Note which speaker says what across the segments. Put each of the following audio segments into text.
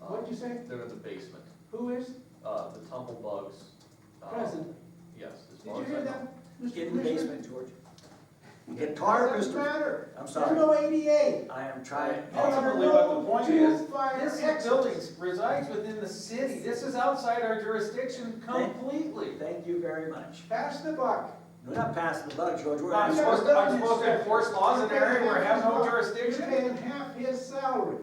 Speaker 1: What'd you say?
Speaker 2: They're in the basement,
Speaker 1: Who is
Speaker 2: uh, the tumble bugs. uh,
Speaker 1: present?
Speaker 2: Yes, as
Speaker 1: Did
Speaker 2: far
Speaker 1: you
Speaker 2: as I
Speaker 1: hear
Speaker 2: know.
Speaker 1: that? Mr.
Speaker 3: Get in the
Speaker 1: Commissioner?
Speaker 3: basement, George. Get tar,
Speaker 1: Doesn't
Speaker 3: Mr.
Speaker 1: matter.
Speaker 3: I'm
Speaker 1: There's
Speaker 3: sorry,
Speaker 1: no ADA.
Speaker 3: I am trying.
Speaker 4: Ultimately, what the point is,
Speaker 1: Two fire
Speaker 4: This
Speaker 1: exits.
Speaker 4: building resides within the city, this is outside our jurisdiction
Speaker 3: Thank-
Speaker 4: completely.
Speaker 3: Thank you very much.
Speaker 1: Pass the buck.
Speaker 3: We're not passing the buck, George, we're
Speaker 4: I'm
Speaker 1: You've
Speaker 3: not.
Speaker 4: supposed,
Speaker 1: never done
Speaker 4: I'm
Speaker 1: this
Speaker 4: supposed to
Speaker 1: stuff.
Speaker 4: enforce laws in an area where I have no
Speaker 1: You're
Speaker 4: jurisdiction?
Speaker 1: paying half his salary.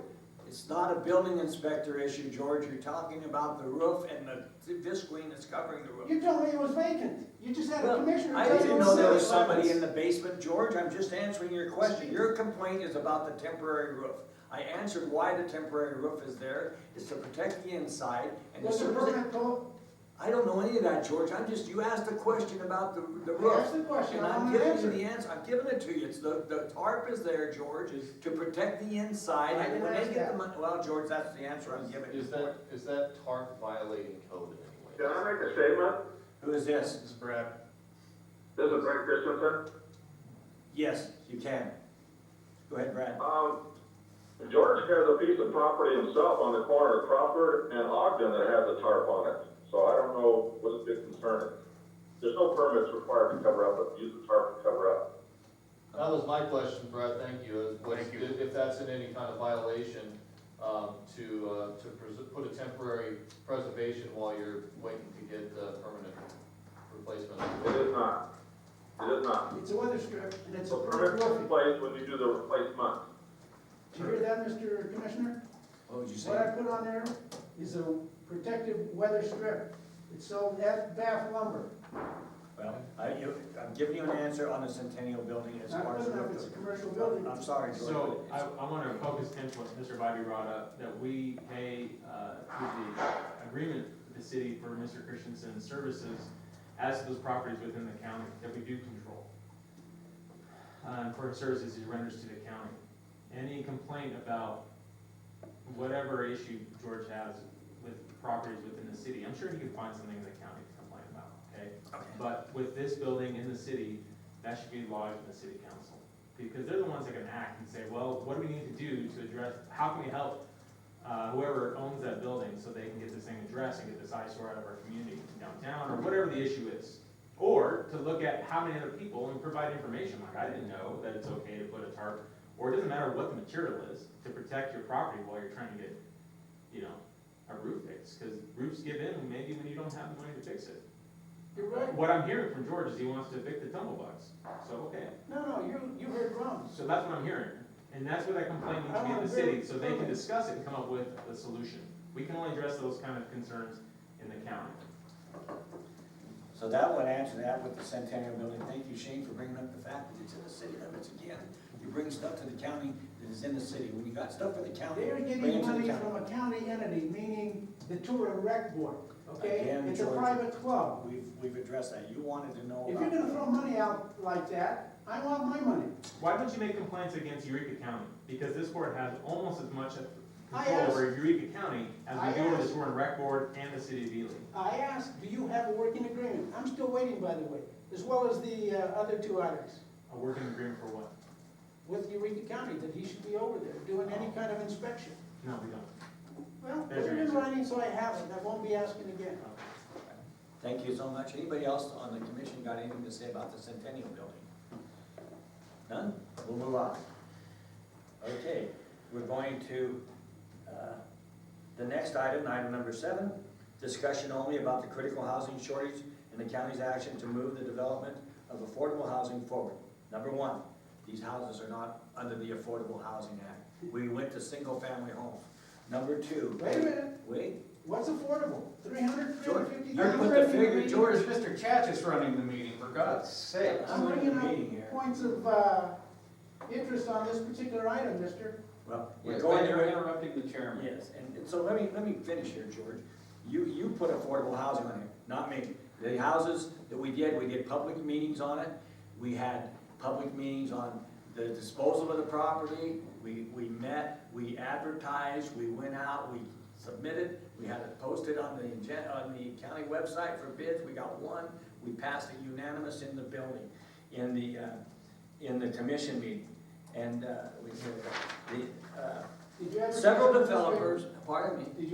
Speaker 3: It's not a building inspector issue, George, you're talking about the roof and the visqueen that's covering the roof.
Speaker 1: You told me it was vacant. You just had a
Speaker 3: Well,
Speaker 1: commissioner.
Speaker 3: I
Speaker 1: tell you
Speaker 3: didn't
Speaker 1: it
Speaker 3: know there was
Speaker 1: vacant.
Speaker 3: somebody in the basement, George, I'm just answering your question, your complaint is about the temporary roof. I answered why the temporary roof is there, is to protect the inside and to
Speaker 1: Was the
Speaker 3: surface.
Speaker 1: permit told?
Speaker 3: I don't know any of that, George, I'm just, you asked a question about the, the roof.
Speaker 1: Ask the question,
Speaker 3: And
Speaker 1: I
Speaker 3: I'm
Speaker 1: want an
Speaker 3: giving you
Speaker 1: answer.
Speaker 3: the answer, I'm giving it to you, it's the, the tarp is there, George, to protect the inside,
Speaker 1: I
Speaker 3: and
Speaker 1: didn't
Speaker 3: when they
Speaker 1: ask
Speaker 3: get
Speaker 1: that.
Speaker 3: the money, well, George, that's the answer I'm giving.
Speaker 2: Is that, is that tarp violating code in
Speaker 5: Can
Speaker 2: any
Speaker 5: I
Speaker 2: way? Uh,
Speaker 5: make a statement?
Speaker 3: Who is this?
Speaker 2: This is Brad.
Speaker 5: This is Brent Christensen.
Speaker 3: Yes, you can. Go ahead, Brad.
Speaker 5: Um, George has a piece of property himself on the corner of Crawford and Ogden that has a tarp on it. So I don't know what's the big concern. There's no permits required to cover up, but use the tarp to cover up.
Speaker 2: That was my question, Brad, thank you. Was If if that's in any kind of violation, um, to, uh, to pres- put a temporary preservation while you're waiting to get the permanent
Speaker 5: It
Speaker 2: replacement.
Speaker 5: is not. It is not.
Speaker 1: It's a weather strip and it's a
Speaker 5: So permits in
Speaker 1: permit.
Speaker 5: place when you do the replacement.
Speaker 1: Did you hear that, Mr. Commissioner?
Speaker 3: What would you say?
Speaker 1: What I put on there is a protective weather strip. It's sold at Bath Lumber.
Speaker 3: Well, I, you, I'm giving you an answer on the Centennial Building as
Speaker 1: Not
Speaker 3: far as.
Speaker 1: good enough,
Speaker 3: the-
Speaker 1: it's a commercial building.
Speaker 3: I'm sorry, George.
Speaker 6: So
Speaker 3: but
Speaker 6: I,
Speaker 3: it's-
Speaker 6: I wanna focus in what Mr. Bobby brought up, that we pay, uh, through the agreement with the city for Mr. Christensen's services as to those properties within the county that we do control. Uh, for services he renders to the county. Any complaint about whatever issue George has with properties within the city, I'm sure he can find something in the county to complain about, okay?
Speaker 3: Okay.
Speaker 6: But with this building in the city, that should be lodged in the city council. Because they're the ones that can act and say, well, what do we need to do to address, how can we help uh, whoever owns that building so they can get this thing addressed and get this eyesore out of our community downtown, or whatever the issue is. Or to look at how many other people and provide information, like, I didn't know that it's okay to put a tarp, or it doesn't matter what the material is, to protect your property while you're trying to get, you know, a roof fix, because roofs give in maybe when you don't have the money to fix it.
Speaker 1: You're right.
Speaker 6: What I'm hearing from George is he wants to evict the tumblebugs. So, okay,
Speaker 1: No, no, you, you heard wrong.
Speaker 6: so that's what I'm hearing. And that's what I complaint needs to be in the city, so they can discuss it and come up with a solution. We can only address those kind of concerns in the county.
Speaker 3: So that would answer that with the Centennial Building. Thank you, Shane, for bringing up the fact that it's in the city limits again. You bring stuff to the county that is in the city. When you got stuff for the county,
Speaker 1: They're
Speaker 3: bring it
Speaker 1: getting
Speaker 3: to the
Speaker 1: money
Speaker 3: county.
Speaker 1: from a county entity, meaning the Tour and Rec Board, okay?
Speaker 3: Again,
Speaker 1: It's a
Speaker 3: George.
Speaker 1: private club.
Speaker 3: We've, we've addressed that. You wanted to know
Speaker 1: If
Speaker 3: about.
Speaker 1: you're gonna throw money out like that, I want my money.
Speaker 6: Why don't you make complaints against Eureka County? Because this board has almost as much
Speaker 1: I
Speaker 6: control over Eureka County as
Speaker 1: I
Speaker 6: we do over
Speaker 1: asked-
Speaker 6: the Warren Rec Board and the city of Ely.
Speaker 1: I asked, do you have a working agreement? I'm still waiting, by the way, as well as the uh, other two items
Speaker 6: A working agreement for what?
Speaker 1: with Eureka County, that he should be over there doing any kind of inspection.
Speaker 6: No, we don't.
Speaker 1: Well, put
Speaker 6: There's your
Speaker 1: it in
Speaker 6: answer.
Speaker 1: writing so I have it, I won't be asking again.
Speaker 3: Thank you so much. Anybody else on the commission got anything to say about the Centennial Building? None? We'll move on. Okay, we're going to, uh, the next item, item number seven, discussion only about the critical housing shortage and the county's action to move the development of affordable housing forward. Number one, these houses are not under the Affordable Housing Act. We went to single-family homes. Number two.
Speaker 1: Wait a minute,
Speaker 3: Wait,
Speaker 1: what's affordable? Three hundred, three
Speaker 3: George,
Speaker 1: hundred fifty
Speaker 3: you're
Speaker 1: thousand?
Speaker 3: put the figure, George,
Speaker 4: Mr. Chatchis running the meeting, for God's sake.
Speaker 3: I'm
Speaker 1: I'm
Speaker 3: running
Speaker 1: bringing
Speaker 3: the meeting here.
Speaker 1: up points of, uh, interest on this particular item, mister.
Speaker 3: Well, we're
Speaker 4: Yes,
Speaker 3: going
Speaker 4: but
Speaker 3: to.
Speaker 4: you're interrupting the chairman.
Speaker 3: Yes, and and so let me, let me finish here, George. You, you put affordable housing on here, not me. The houses that we did, we did public meetings on it. We had public meetings on the disposal of the property. We, we met, we advertised, we went out, we submitted, we had it posted on the, agen- on the county website for bids. We got one, we passed it unanimous in the building, in the, uh, in the commission meeting. And, uh, we, the, uh,
Speaker 1: Did you ever-
Speaker 3: Several developers, pardon me,